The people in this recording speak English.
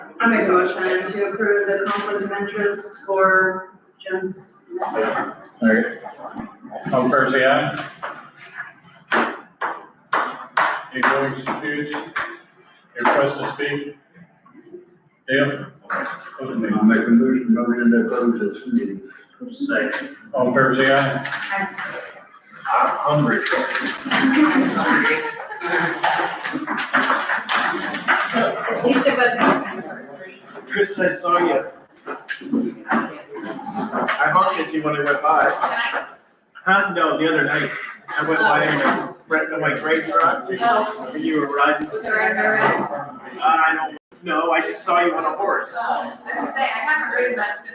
I make a motion to approve the conflict of interest for Jim's. Alright. All fair say aye. Any opposed, excused? Any request to speak? Dale? Open I make a motion, motion to close this meeting. me. Second. All fair say aye. I'm hungry. At least it wasn't an anniversary. Chris, I saw you. I honked at you when I went by. Can Huh? No, the other night. I went by in my, right, in my great truck. Oh. And you were riding. I, was there a nerve? I don't, no, I just saw you on a horse. Oh, I was gonna say, I haven't heard much since